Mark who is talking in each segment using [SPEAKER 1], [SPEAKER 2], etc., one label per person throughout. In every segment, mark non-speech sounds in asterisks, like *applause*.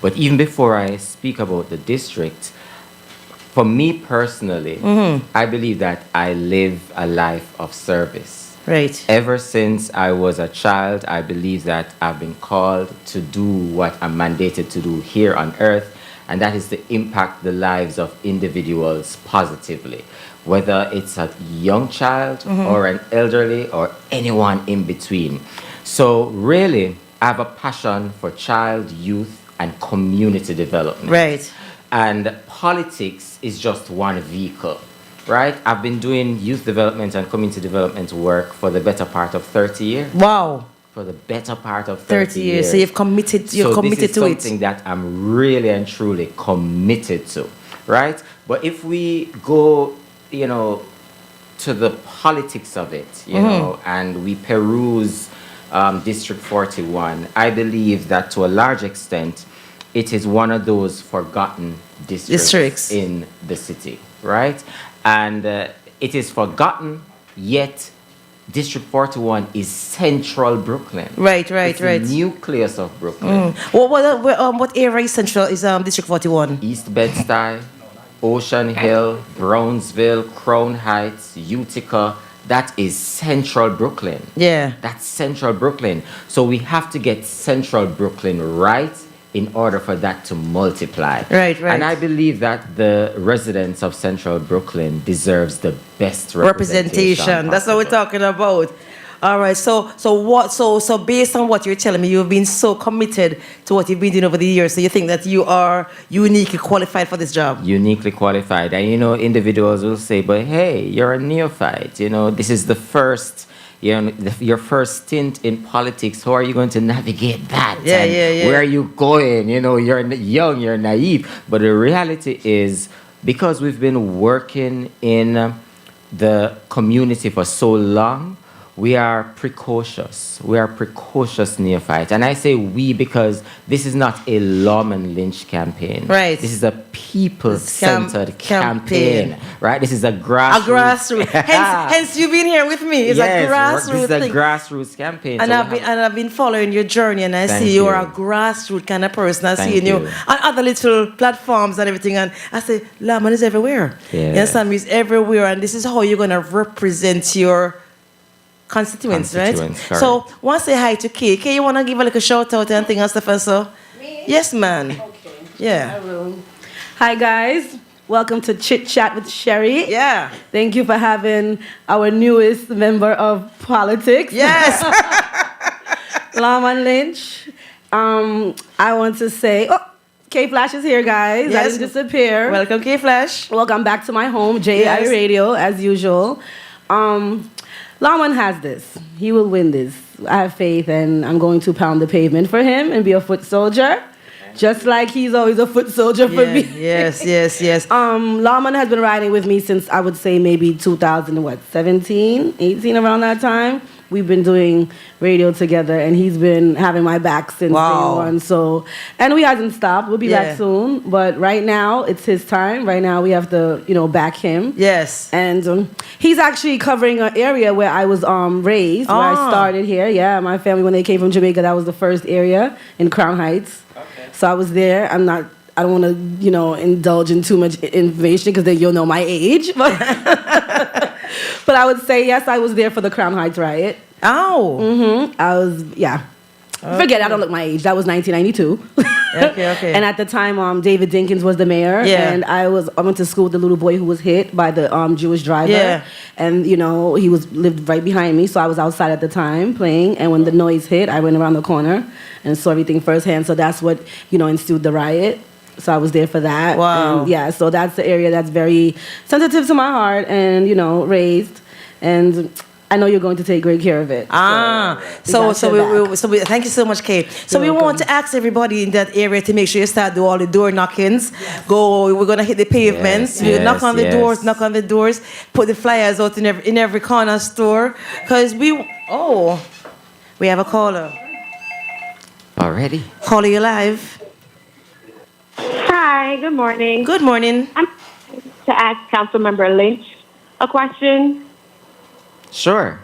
[SPEAKER 1] But even before I speak about the district, for me personally, I believe that I live a life of service.
[SPEAKER 2] Right.
[SPEAKER 1] Ever since I was a child, I believe that I've been called to do what I'm mandated to do here on earth, and that is to impact the lives of individuals positively. Whether it's a young child
[SPEAKER 2] Mm-hmm.
[SPEAKER 1] or an elderly or anyone in between. So, really, I have a passion for child, youth, and community development
[SPEAKER 2] Right.
[SPEAKER 1] and politics is just one vehicle right i've been doing youth development and community development work for the better part of 30 years
[SPEAKER 2] Wow.
[SPEAKER 1] for the better part of 30,
[SPEAKER 2] 30 years. So you've committed you're
[SPEAKER 1] So
[SPEAKER 2] committed
[SPEAKER 1] this is
[SPEAKER 2] to
[SPEAKER 1] something
[SPEAKER 2] it.
[SPEAKER 1] that i'm really and truly committed to right but if we go you know to the politics of it you
[SPEAKER 2] Mm-hmm.
[SPEAKER 1] know and we peruse um, district 41 i believe that to a large extent it is one of those forgotten districts,
[SPEAKER 2] Districts.
[SPEAKER 1] in the city right and uh, it is forgotten yet district 41 is central brooklyn
[SPEAKER 2] Right, right,
[SPEAKER 1] It's the
[SPEAKER 2] right. Mm.
[SPEAKER 1] nucleus of brooklyn
[SPEAKER 2] What what, what, um, what area is central is um District 41?
[SPEAKER 1] East Bed-Stuy, Ocean Hill, Brownsville, Crown Heights, Utica. That is central Brooklyn.
[SPEAKER 2] Yeah.
[SPEAKER 1] That's central Brooklyn. So we have to get central Brooklyn right in order for that to multiply.
[SPEAKER 2] Right, right.
[SPEAKER 1] And I believe that the residents of central Brooklyn deserves the best representation.
[SPEAKER 2] Representation. That's what we're
[SPEAKER 1] possible.
[SPEAKER 2] talking about. All right. So so what so so based on what you're telling me, you've been so committed to what you've been doing over the years. So you think that you are uniquely qualified for this job.
[SPEAKER 1] uniquely qualified. And you know, individuals will say, "But hey, you're a neophyte. You know, this is the first, you know, the, your first stint in politics. How are you going to navigate that?
[SPEAKER 2] Yeah,
[SPEAKER 1] And
[SPEAKER 2] yeah, yeah.
[SPEAKER 1] Where are you going? You know, you're n- young, you're naive. But the reality is, because we've been working in the community for so long. We are precocious. We are precocious neophytes. And I say we because this is not a Lawman Lynch campaign.
[SPEAKER 2] Right.
[SPEAKER 1] This is a people
[SPEAKER 2] Cam-
[SPEAKER 1] centered
[SPEAKER 2] campaign.
[SPEAKER 1] campaign, right? This is a
[SPEAKER 2] A
[SPEAKER 1] grassroots. *laughs*
[SPEAKER 2] grassroots. hence hence you've been here with me. It's
[SPEAKER 1] yes,
[SPEAKER 2] a
[SPEAKER 1] we're-
[SPEAKER 2] grassroots
[SPEAKER 1] This is
[SPEAKER 2] thing.
[SPEAKER 1] a grassroots campaign.
[SPEAKER 2] and
[SPEAKER 1] so
[SPEAKER 2] I've
[SPEAKER 1] we
[SPEAKER 2] been
[SPEAKER 1] have-
[SPEAKER 2] and I've been following your journey, and I
[SPEAKER 1] Thank
[SPEAKER 2] see you're
[SPEAKER 1] you.
[SPEAKER 2] a grassroots kind of person. I
[SPEAKER 1] Thank
[SPEAKER 2] see you
[SPEAKER 1] you.
[SPEAKER 2] on other little platforms and everything, and I say Laman is everywhere.
[SPEAKER 1] Yeah.
[SPEAKER 2] Yes, Sam is everywhere, and this is how you're gonna represent your constituents,
[SPEAKER 1] Constituents,
[SPEAKER 2] right? So want to say hi to Kay. Kay, you wanna give a little shout out and thing and stuff and so.
[SPEAKER 3] Me?
[SPEAKER 2] Yes, man.
[SPEAKER 3] Okay.
[SPEAKER 2] Yeah.
[SPEAKER 3] Hello. Hi, guys. Welcome to Chit Chat with Sherry.
[SPEAKER 2] Yeah.
[SPEAKER 3] Thank you for having our newest member of politics,
[SPEAKER 2] Yes.
[SPEAKER 3] *laughs* Laman Lynch. Um, I want to say, oh, K Flash is here, guys. I
[SPEAKER 2] Yes.
[SPEAKER 3] didn't disappear.
[SPEAKER 2] Welcome, Kay Flash.
[SPEAKER 3] Welcome back to my home, JI
[SPEAKER 2] Yes.
[SPEAKER 3] Radio, as usual. Um, Laman has this. He will win this. I have faith, and I'm going to pound the pavement for him and be a foot soldier, just like he's always a foot soldier for
[SPEAKER 2] Yeah,
[SPEAKER 3] me.
[SPEAKER 2] yes, yes, yes.
[SPEAKER 3] Um, Laman has been riding with me since I would say maybe 2000, what, 17, 18, around that time. We've been doing radio together, and he's been having my back since
[SPEAKER 2] Wow.
[SPEAKER 3] day one. So, and we hasn't stopped. We'll be
[SPEAKER 2] Yeah.
[SPEAKER 3] back soon, but right now it's his time. Right now we have to, you know, back him. *laughs*
[SPEAKER 2] Yes.
[SPEAKER 3] And um, he's actually covering an area where I was um, raised, where I
[SPEAKER 2] Ah.
[SPEAKER 3] started here. Yeah, my family, when they came from Jamaica, that was the first area in Crown Heights. Okay. So I was there. I'm not, I don't want to, you know, indulge in too much i- information because then you'll know my age. *laughs* But, but I would say, yes, I was there for the Crown Heights riot.
[SPEAKER 2] Ow.
[SPEAKER 3] Mm-hmm. I was, yeah. Forget it, I don't look my age. That was *laughs* 1992.
[SPEAKER 2] Okay, okay.
[SPEAKER 3] And at the time, um, David Dinkins was the mayor.
[SPEAKER 2] Yeah.
[SPEAKER 3] And I was I went to school with the little boy who was hit by the um, Jewish driver.
[SPEAKER 2] Yeah.
[SPEAKER 3] And you know he was lived right behind me, so I was outside at the time playing. And when the noise hit, I went around the corner and saw everything firsthand. So that's what you know ensued the riot. So I was there for that.
[SPEAKER 2] Wow.
[SPEAKER 3] And, yeah. So that's the area that's very sensitive to my heart, and you know raised, and I know you're going to take great care of it.
[SPEAKER 2] Ah,
[SPEAKER 3] we
[SPEAKER 2] so
[SPEAKER 3] got
[SPEAKER 2] so
[SPEAKER 3] your
[SPEAKER 2] we,
[SPEAKER 3] back.
[SPEAKER 2] we so we thank you so much, Kate. So we
[SPEAKER 3] You're
[SPEAKER 2] want to ask everybody in that area to make sure you start do all the door knockings. Go, we're gonna hit the pavements.
[SPEAKER 1] Yes,
[SPEAKER 2] we
[SPEAKER 1] yes,
[SPEAKER 2] knock on the doors,
[SPEAKER 1] yes.
[SPEAKER 2] knock on the doors. Put the flyers out in every in every corner store, cause we oh, we have a caller.
[SPEAKER 1] already.
[SPEAKER 2] Caller, you live.
[SPEAKER 4] Hi, good morning.
[SPEAKER 2] Good morning.
[SPEAKER 4] I'm to ask Councilmember Lynch a question.
[SPEAKER 1] Sure.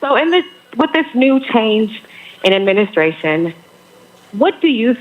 [SPEAKER 4] So, in this, with this new change in administration, what do you